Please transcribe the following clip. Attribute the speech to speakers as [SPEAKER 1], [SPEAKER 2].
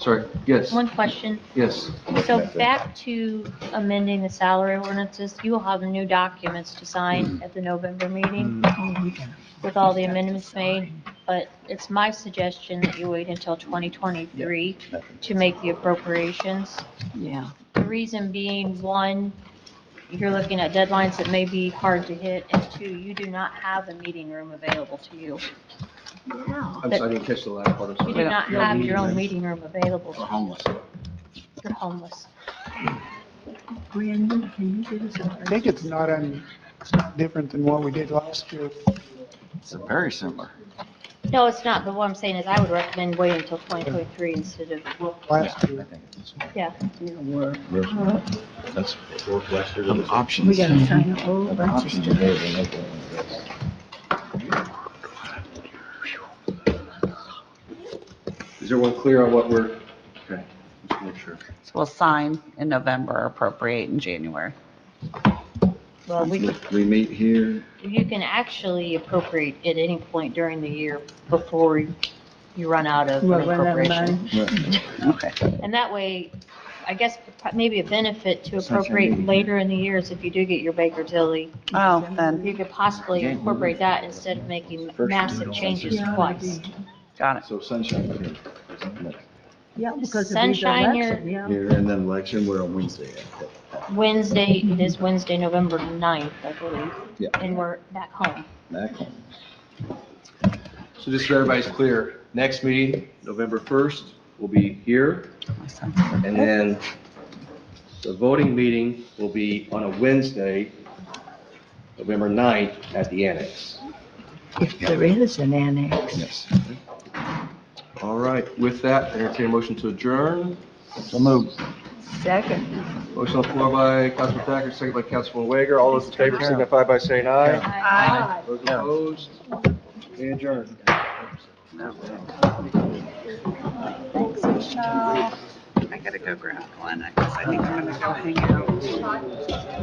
[SPEAKER 1] sorry, yes,
[SPEAKER 2] One question.
[SPEAKER 1] yes.
[SPEAKER 2] So back to amending the salary ordinances, you will have new documents to sign at the November meeting
[SPEAKER 1] Mm,
[SPEAKER 2] with all the amendments made, but it's my suggestion that you wait until 2023 to make the appropriations.
[SPEAKER 3] Yeah.
[SPEAKER 2] The reason being, one, you're looking at deadlines that may be hard to hit, and two, you do not have a meeting room available to you.
[SPEAKER 1] I'm sorry, I didn't catch the last part, I'm
[SPEAKER 2] You
[SPEAKER 1] sorry.
[SPEAKER 2] do not
[SPEAKER 1] No
[SPEAKER 2] have your
[SPEAKER 1] meeting
[SPEAKER 2] own
[SPEAKER 1] room.
[SPEAKER 2] meeting room available.
[SPEAKER 4] We're homeless.
[SPEAKER 2] You're homeless.
[SPEAKER 3] Brandon, can you give us a?
[SPEAKER 5] I think it's not, un- it's not different than what we did last year.
[SPEAKER 4] It's very similar.
[SPEAKER 2] No, it's not, but what I'm saying is I would recommend waiting until 2023 instead of
[SPEAKER 5] Last year,
[SPEAKER 6] That's Northwestern.
[SPEAKER 4] Um, Options.
[SPEAKER 3] We gotta sign a whole
[SPEAKER 6] An
[SPEAKER 3] bunch of
[SPEAKER 6] option
[SPEAKER 3] stuff.
[SPEAKER 6] there, they make it one of those.
[SPEAKER 1] Is everyone clear on what we're, okay, just make sure.
[SPEAKER 7] So we'll sign in November, appropriate in January.
[SPEAKER 2] Well, we,
[SPEAKER 4] We meet here.
[SPEAKER 2] you can actually appropriate at any point during the year before you run out of
[SPEAKER 3] Well, well, that
[SPEAKER 2] appropriation.
[SPEAKER 3] money.
[SPEAKER 7] Okay.
[SPEAKER 2] And that way, I guess maybe a benefit to
[SPEAKER 4] That's not your
[SPEAKER 2] appropriate
[SPEAKER 4] meeting.
[SPEAKER 2] later in the year is if you do get your Baker Tilly,
[SPEAKER 7] Oh, then,
[SPEAKER 2] you could possibly
[SPEAKER 4] Yeah.
[SPEAKER 2] incorporate that instead of making
[SPEAKER 4] First, you
[SPEAKER 2] massive
[SPEAKER 4] don't-
[SPEAKER 2] changes
[SPEAKER 3] Yeah,
[SPEAKER 2] twice.
[SPEAKER 7] got it.
[SPEAKER 4] So sunshine here.
[SPEAKER 3] Yeah, because of these
[SPEAKER 2] Sunshine here.
[SPEAKER 3] elections, yeah.
[SPEAKER 4] Here and then election, we're on Wednesday.
[SPEAKER 2] Wednesday, it is Wednesday, November 9th, I believe.
[SPEAKER 4] Yeah.
[SPEAKER 2] And we're back home.
[SPEAKER 4] Back home.
[SPEAKER 1] So just so everybody's clear, next meeting, November 1st, will be here,
[SPEAKER 7] My son's-
[SPEAKER 1] and then the voting meeting will be on a Wednesday, November 9th, at the annex.
[SPEAKER 3] If there is an annex.
[SPEAKER 4] Yes.
[SPEAKER 1] All right, with that, entertain a motion to adjourn.
[SPEAKER 4] So move.
[SPEAKER 3] Second.
[SPEAKER 1] Motion on the floor by Councilman Thacker, second by Councilman Wager. All those in favor signify by saying aye. Those opposed, we adjourn.
[SPEAKER 7] I gotta go grab one, because I think I'm gonna go hang out.